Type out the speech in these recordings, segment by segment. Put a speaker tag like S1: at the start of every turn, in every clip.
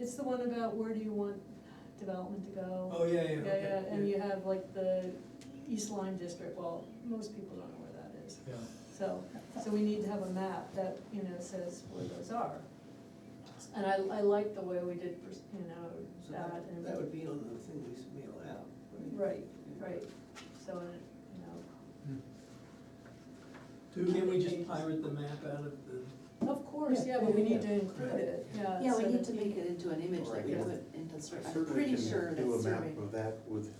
S1: It's the one about where do you want development to go?
S2: Oh, yeah, yeah,
S1: Yeah,
S2: okay,
S1: yeah, and
S2: yeah.
S1: you have like the East Lyme District, well, most people don't know where that is.
S2: Yeah,
S1: So, so we need to have a map that, you know, says where those are. And I, I like the way we did, pers- you know,
S3: So
S1: that
S3: that,
S1: and.
S3: that would be on the thing we s- mail out, right?
S1: Right, right, so, and it, you know,
S2: Do, can we just pirate the map out of the,
S1: of course, yeah,
S3: Yeah,
S1: but we
S3: yeah,
S1: need to
S3: yeah.
S1: include it, yeah.
S4: Yeah,
S1: so
S4: we need
S1: that
S4: to make it into an image that we
S5: Right.
S4: put into survey,
S5: I
S4: I'm
S5: certainly
S4: pretty
S5: can
S4: sure
S5: do a
S4: that's
S5: map
S4: survey,
S5: of that with,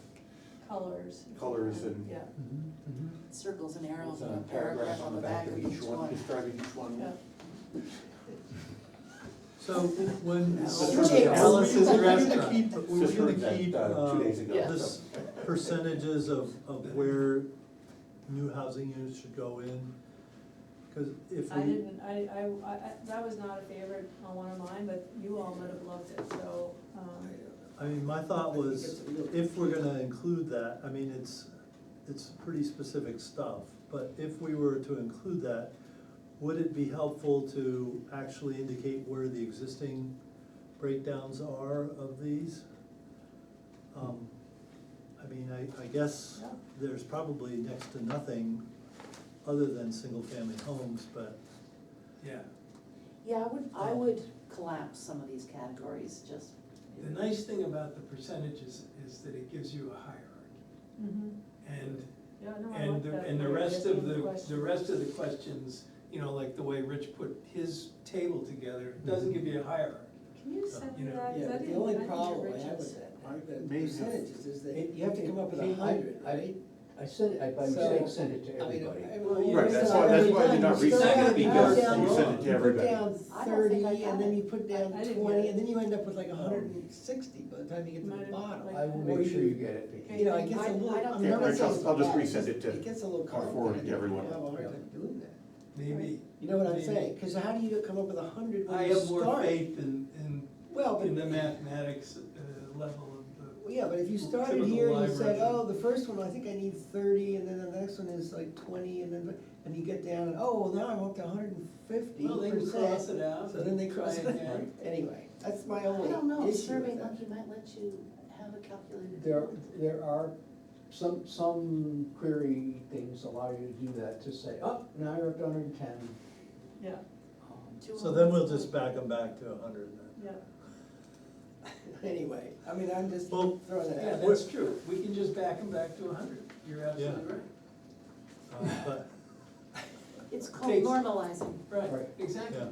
S1: Colors. if you
S5: Colors
S1: can,
S5: and-
S1: Yeah,
S4: circles and arrows
S5: with
S4: and a
S5: a paragraph on the back of each one, describing each one.
S1: yeah.
S2: so when
S5: Alice-
S2: Alice's
S5: Alice's
S2: restaurant,
S5: restaurant.
S2: we were
S5: Just heard
S2: gonna
S5: that,
S2: keep,
S5: uh, two
S2: um,
S5: days ago. Yeah.
S2: this percentages of, of where new housing units should go in. Cause if
S1: I
S2: we,
S1: didn't, I, I, I, I- that was not a favorite on one of mine, but you all might have loved it, so, um,
S2: I mean, my thought was, if we're gonna include that, I mean, it's, it's pretty specific stuff, but if we were to include that, would it be helpful to actually indicate where the existing breakdowns are of these? Um, I mean, I, I guess
S1: Yeah.
S2: there's probably next to nothing other than single-family homes, but. Yeah,
S4: Yeah, I would, I would collapse some of these categories, just.
S6: The nice thing about the percentages is that it gives you a hierarchy.
S1: mhm.
S6: And,
S1: yeah, no, I like
S6: and,
S1: that.
S6: the- and the
S1: idea,
S6: rest of
S1: being
S6: the, the
S1: question.
S6: rest of the questions, you know, like the way Rich put his table together, it doesn't give you a hierarchy.
S1: Can you send
S6: uh, you
S1: me
S6: know,
S1: that,
S3: Yeah,
S1: cause I
S3: but the
S1: didn't, I
S3: only
S1: didn't get
S3: problem I have
S1: Rich's.
S3: with that,
S5: I-
S3: the
S5: maybe-
S3: percentages, is that
S7: It-
S3: you have to come up with a
S7: it-
S3: hundred,
S7: I-
S3: right?
S7: I sent it, I by
S3: So,
S7: mistake sent it to
S3: I mean,
S7: everybody.
S3: I-
S6: Well,
S3: you
S5: Right,
S3: know,
S5: that's
S3: so
S5: why- that's
S3: every
S5: why they're
S3: time
S5: not
S3: you start
S5: recited,
S3: out, you
S5: because
S3: put down-
S5: you sent it to
S4: I
S5: everybody.
S3: You put down
S4: don't think I
S3: thirty,
S4: got
S3: and then
S4: it.
S3: you put down
S1: I didn't get
S3: twenty,
S1: it.
S3: and then you end up with like a hundred and sixty by the time you get to
S1: Might
S3: the
S1: have,
S3: bottom.
S1: like-
S7: I will
S3: Or
S7: make sure uh, you get it,
S3: You
S7: Vicki.
S3: know, it gets
S4: I-
S3: a
S4: I
S3: little,
S4: don't
S3: I'm
S4: think
S3: not
S4: it's
S3: saying it's
S5: I'll just
S3: bad,
S5: resend
S3: just-
S5: it to-
S3: It gets a little
S5: I'll
S3: complicated.
S5: forward it to
S3: You
S5: everyone.
S3: have a hard time doing that.
S6: Maybe.
S3: You know what I'm
S6: maybe-
S3: saying? Because how do you come up with a hundred
S6: I
S3: when you
S6: have more
S3: start?
S6: faith in, in,
S3: Well,
S6: in the
S3: but-
S6: mathematics uh, level of
S3: Well, Yeah, but if you started
S6: Typical
S3: here and you
S6: library.
S3: said, oh, the first one, I think I need thirty, and then the next one is like twenty, and then, and you get down, and, oh, well, now I'm up to hundred and
S6: the.
S3: fifty
S6: Well, they can cross
S3: percent.
S6: it out.
S3: So then they cross it
S6: try
S3: out,
S6: again.
S3: anyway, that's my
S4: I
S3: only
S4: don't know,
S3: issue
S4: Survey
S3: with that.
S4: Monkey might let you have a calculated.
S7: There, there are some, some query things allow you to do that, to say, oh, now you're up to hundred and ten. um,
S1: Yeah,
S2: so then we'll just back them back to a hundred then.
S1: yeah,
S3: Anyway, I mean, I'm just
S2: Well,
S3: throwing that
S6: Yeah,
S3: out.
S6: that's true. We can just back them back to a hundred. You're absolutely right.
S2: Um, But,
S4: It's called
S6: Takes-
S4: normalizing.
S6: Right,
S7: Right.
S6: exactly.
S2: yeah.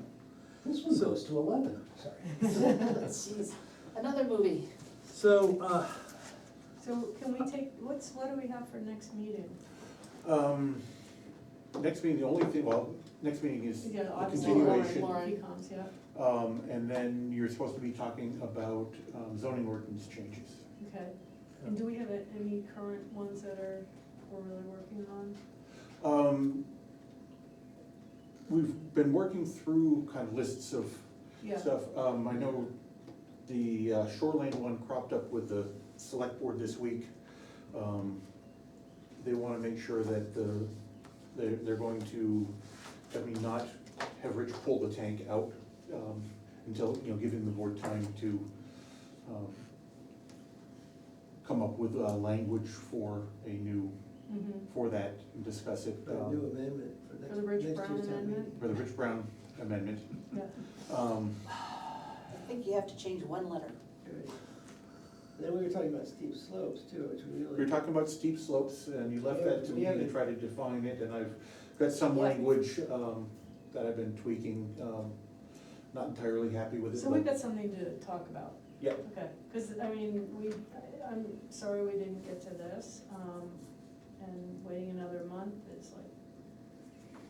S7: This one
S2: So-
S7: goes to eleven, sorry.
S4: Jeez, another movie.
S2: So, uh,
S1: so can we take, what's, what do we have for next meeting?
S5: Um, next meeting, the only thing, well, next meeting is
S1: Yeah,
S5: a
S1: obviously, Lauren,
S5: continuation.
S4: Lauren.
S1: Pecoms, yeah,
S5: Um, and then you're supposed to be talking about um, zoning ordinance changes.
S1: okay. And do we have a- any current ones that are, we're really working on?
S5: Um, we've been working through kind of lists of
S1: Yeah,
S5: stuff. Um, I know the uh, shoreline one cropped up with the select board this week. Um, They wanna make sure that the, they're, they're going to, I mean, not have Rich pull the tank out, um, until, you know, giving the board time to, um, come up with, uh, language for a new,
S1: mhm.
S5: for that, and discuss it,
S3: Put a new
S5: um,
S3: amendment for next,
S1: the Rich
S3: next year's
S1: Brown
S3: town meeting.
S1: amendment?
S5: for the Rich Brown amendment.
S1: Yeah,
S5: Um,
S4: I think you have to change one letter.
S3: Right. Then we were talking about steep slopes too, which we really.
S5: We were talking about steep slopes, and you left that to me to try to define it, and I've got some language, um, that I've been tweaking, um, not entirely happy with it.
S1: so we've
S5: but-
S1: got something to talk about.
S5: Yeah,
S1: Okay, because, I mean, we, I- I'm sorry we didn't get to this, um, and waiting another month is like,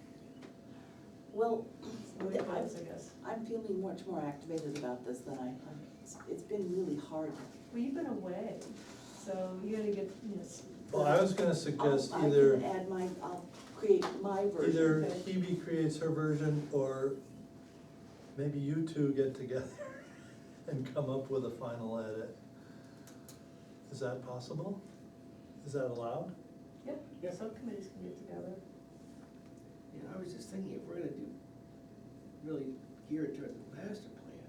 S4: Well,
S1: really
S4: I-
S1: close, I guess.
S4: I'm feeling much more activated about this than I, I'm- it's- it's been really hard.
S1: Well, you've been away, so you gotta get, you know. s-
S2: Well, I was gonna suggest
S4: I'll- Oh, I
S2: either,
S4: can add my, I'll create my version.
S2: either
S4: but-
S2: Hebe creates her version, or maybe you two get together and come up with a final edit. Is that possible? Is that allowed?
S1: Yeah, subcommittees can get together.
S3: You know, I was just thinking, if we're gonna do, really gear it toward the master plan,